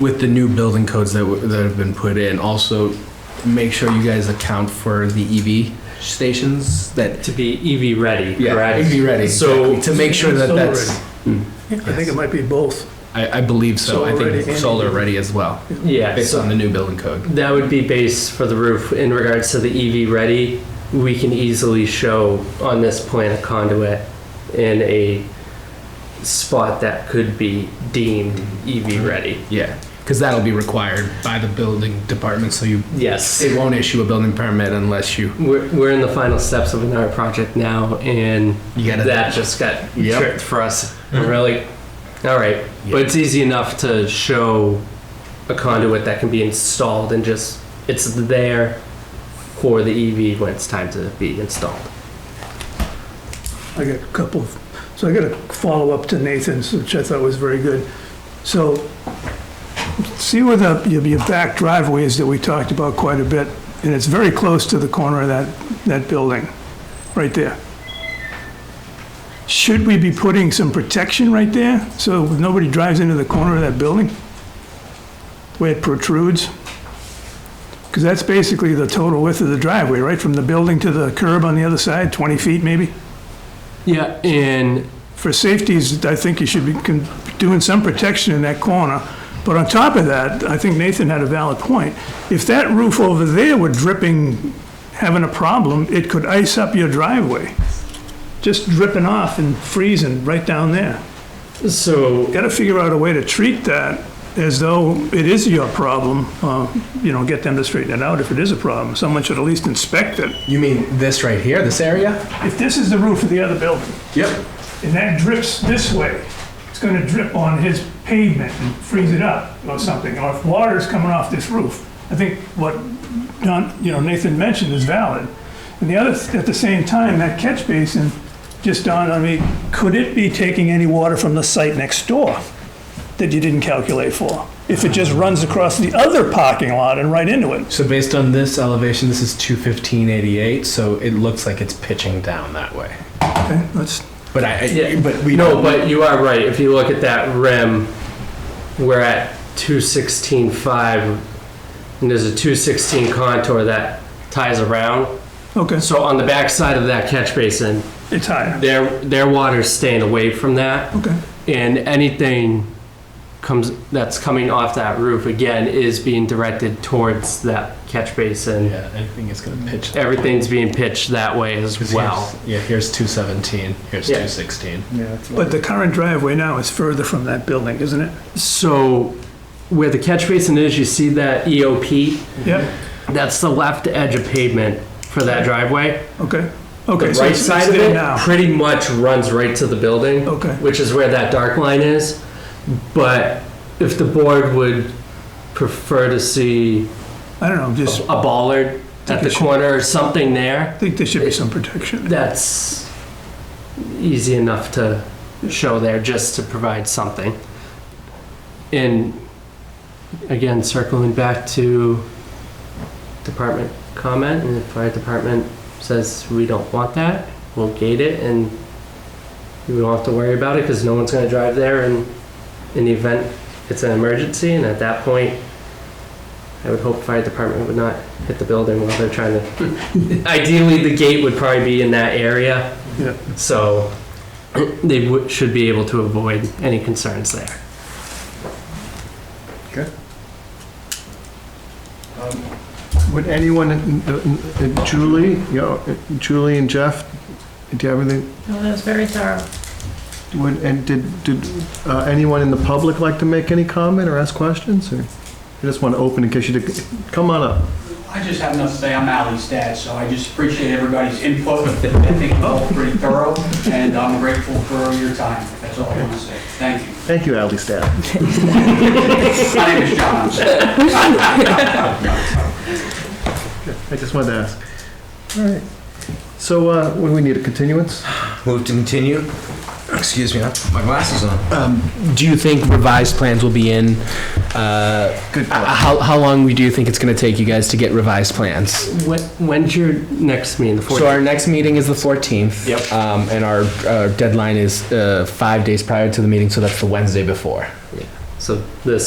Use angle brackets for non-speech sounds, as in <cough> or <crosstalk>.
with the new building codes that, w- that have been put in, also make sure you guys account for the EV stations that, to be EV ready, yeah, correct? be ready. So- exactly, To make sure that Solar that's, I think it might be both. I, I believe so. I Solar ready think and solar EV. ready as well, Yeah, based on so the new building code. that would be base for the roof. In regards to the EV ready, we can easily show on this plan a conduit in a spot that could be deemed Mm-hmm. EV ready. Yeah, because that'll be required by the building department, so you, Yes. it won't issue a building permit unless you, We're, we're in the final steps of another project now, and You gotta- that just got Yep. Mm-hmm. tripped for us. We're really, all right, Yeah. but it's easy enough to show a conduit that can be installed and just it's there for the EV when it's time to be installed. I got a couple, of- so I got a follow-up to Nathan's, which I thought was very good. So, see where the, your your back driveway is that we talked about quite a bit, and it's very close to the corner of that, that building, right there. Should we be putting some protection right there, so nobody drives into the corner of that building? Where it protrudes? Because that's basically the total width of the driveway, right, from the building to the curb on the other side, 20 feet maybe? Yeah, and for safeties, I think you should be con- doing some protection in that corner. But on top of that, I think Nathan had a valid point. If that roof over there were dripping, having a problem, it could ice up your driveway. Just dripping off and freezing right down there. so Got to figure out a way to treat that as though it is your problem, uh, you know, get them to straighten it out if it is a problem. Someone should at least inspect it. you mean this right here, this area? If this is the roof of the other building, Yep. and that drips this way, it's gonna drip on his pavement and freeze it up or something, or if water's coming off this roof. I think what Don, you know, Nathan mentioned is valid. And the other, at the same time, that catch basin just dawned on me, could it be taking any water from the site next door that you didn't calculate for? If it just runs across the other parking lot and right into it? So based on this elevation, this is two fifteen eighty eight. So it looks like it's pitching down that way. Okay, let's, But I, I- Yeah. but we no, don't- but you are right. If you look at that rim, we're at two sixteen five, and there's a two sixteen contour that ties around. okay, So on the back side of that catch basin, it's higher, their, their water's staying away from that, okay. and anything comes, that's coming off that roof again is being directed towards that catch basin. yeah, I think it's gonna pitch. Everything's being pitched that way as 'Cause well. here's- yeah, here's two seventeen. Here's Yeah. two sixteen. But the current driveway now is further from that building, isn't it? So where the catch basin is, you see that EOP? Yep. That's the left edge of pavement for that driveway. Okay, The okay, so right it's it's side of there it now. pretty much runs right to the building. Okay, which is where that dark line is. But if the board would prefer to see I don't know, just, a bollard at the corner or something there, think there should be some protection. that's easy enough to show there, just to provide something. And again, circling back to department comment, and if our department says we don't want that, we'll gate it and we don't have to worry about it because no one's gonna drive there and in the event it's an emergency, and at that point, I would hope fire department would not hit the building while they're trying to. Ideally, the gate would probably be in that area. Yeah. So <clears throat> they would, should be able to avoid any concerns there. Would anyone, Julie, you know, Julie and Jeff, do you have anything, No, that was very thorough. would, and did, did uh, anyone in the public like to make any comment or ask questions, or you just want to open in case you did, come on up. I just have enough to say, I'm Ally's dad, so I just appreciate everybody's input. I think it's all pretty thorough, and I'm grateful for your time. That's all I want to say. Thank you. Thank you, Ally Staff. My name is John. I'm sorry. I just wanted to ask. All right, so, uh, we we need a continuance? Move to continue. Excuse me, I put my glasses on. Do you think revised plans will be in? Uh, Good uh, point. how how long we- do you think it's gonna take you guys to get revised plans? When, when's your next meeting? The So 14th? our next meeting is the fourteenth. Yep. Um, and our, uh, our deadline is uh, five days prior to the meeting, so that's the Wednesday before. So this